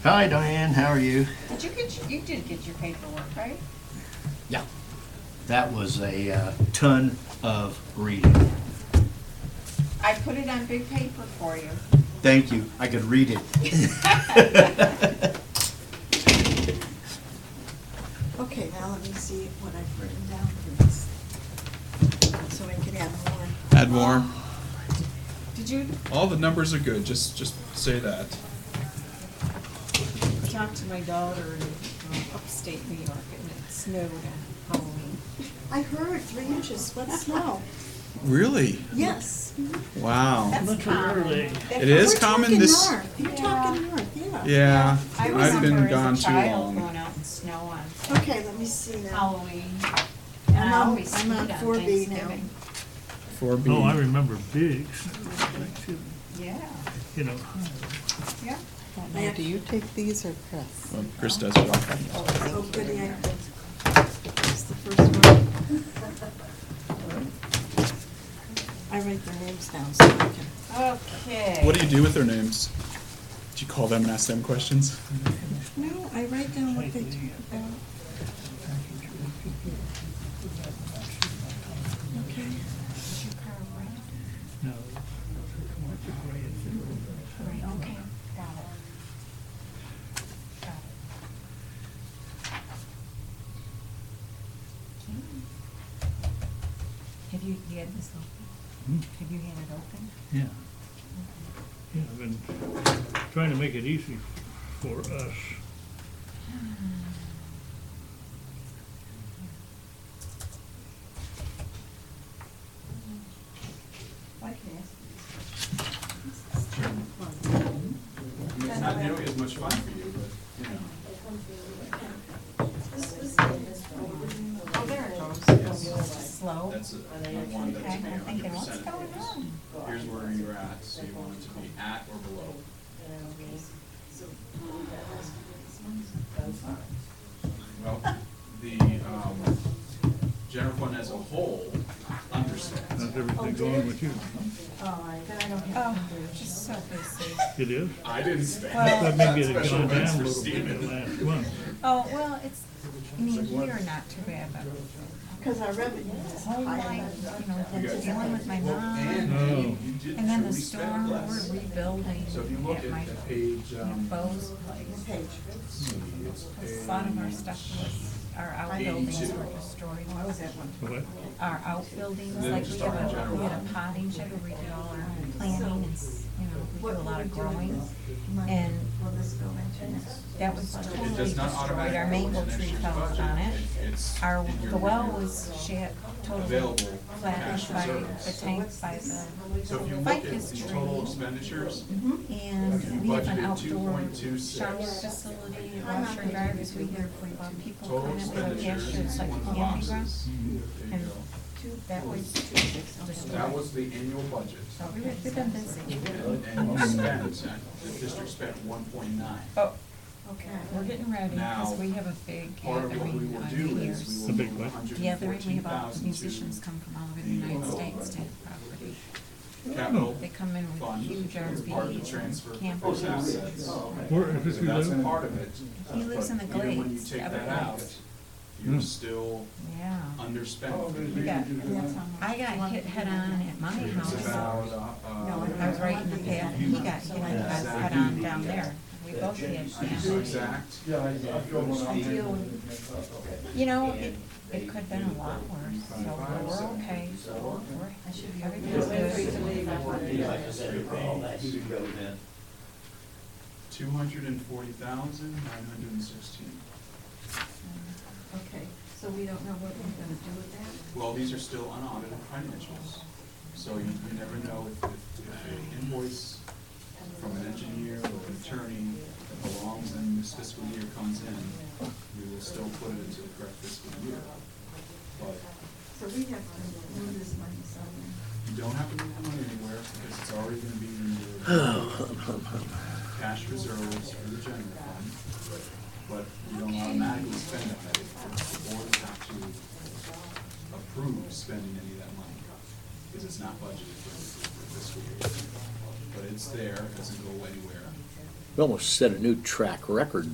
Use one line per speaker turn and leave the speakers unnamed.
Hi Diane, how are you?
Did you get, your- you did get your paperwork, right?
Yeah. That was a uh, ton of reading.
I put it on big paper for you.
Thank you, I could read it.
Okay, now let me see what I've written down for this, so I can add more.
Add more.
Did you
All the numbers are good. Just just say that.
talk to my daughter in um, upstate New York and it snowed on Halloween?
I heard three inches, what snow?
Really?
Yes.
Wow.
That's common.
It is common this-
We're talking north, you're talking north, yeah.
Yeah.
I
I've been
remember
gone
as a
too
child going
long.
out in snow on
Okay, let me see now.
Halloween.
I'm
And I
on-
always
I'm
skied
on
on
4B now.
Thanksgiving.
Four B.
Oh, I remember Biggs,
Yeah,
you know,
yeah.
Mac-
Do you take these or press?
Well, Chris does it all.
Oh, goody, I, that's the first one. I write their names down so I can.
Okay.
What do you do with their names? Do you call them and ask them questions?
No, I write down what they talk about. Okay.
no.
Right, okay, got it. Got it. Have you, you had this open? Have you had it open?
Yeah. Yeah, I've been trying to make it easy for us.
Why can I ask?
It's not nearly as much fun for you,
Oh, there it goes. Slow. Okay,
but that's a, one that's
I'm thinking, what's going on?
Here's where you're at, so you want it to be at or below. Well, the um, general fund as a whole understands.
How's everything going with you?
Oh, just so busy.
It is?
I didn't spend.
That may get it
Special
gone
events
down a
for
little bit
Steven.
Uh, in the last month.
Oh, well, it's, I mean, here, not too bad, but
Because our revenue is
whole
higher
life, you know, that's dealing with my mom.
Oh,
And then the storm, we're rebuilding
So if you look
at my
at page, um,
Bo's place.
than
A lot of our stuff was, our outbuildings were destroyed.
what?
Our outbuildings, like we have a, we had a potting shed where we did all our planting and, s- you know, we do a lot of growing. And that was
it
totally
does not
destroyed.
automatically.
Our mango
go into
tree
next
fell
year's budget.
on it.
It's
Our,
in your
the well
year.
was shat, totally
Available cash
flattened by the
reserves.
tank, by the
So if you look at
ficus
the total
tree.
expenditures,
And we have an
Budgeted
outdoor
2.26.
shower facility, washer and dryer, because we hear from people
total
coming in with a
expenditures
gesture, it's
is
like
one
a
of the
camping ground.
boxes. There you
And
go.
two, that was two six,
That
destroyed.
was the annual budget.
So we were- we've been busy.
And you spent, the district spent one point nine.
Oh,
Okay.
we're getting ready,
Now,
because we have a big
Part of what we
gathering
will
on
do is
New
we
The
will
big
move
what?
hundred
The
and
other, we
fourteen
have all
thousand
musicians
to uh,
come from all over the United States to have property.
capital
They come in with
fund.
huge
It's part of the
RVs
transfer
and
for those
campers.
assets.
Where, if it's
So That's
you live?
part of it.
He lives in the
Uh, But even when you
Glades,
take
Everglades.
that out,
Hmm.
you're still
Yeah.
underspent.
We got- I got hit head-on at my
It's
house.
about, uh,
I was right in the path, and he got hit head-on down there. We both did,
so
yeah.
exact,
You know, it, it could've been a lot worse, so we're okay. We're- Everything's good.
two hundred and forty thousand, nine hundred and sixteen.
Okay, so we don't know what we're gonna do with that?
Well, these are still unaudited financials, so you, you never know if, if if an invoice from an engineer or an attorney that belongs in this fiscal year comes in, we will still put it into the correct fiscal year. But
So we have to move this money somewhere.
you don't have to move the money anywhere, because it's already gonna be in your cash reserves for the general fund, but you don't automatically spend it, the board will have to approve spending any of that money, because it's not budgeted for for fiscal year. But it's there, it doesn't go anywhere,
We almost set a new track record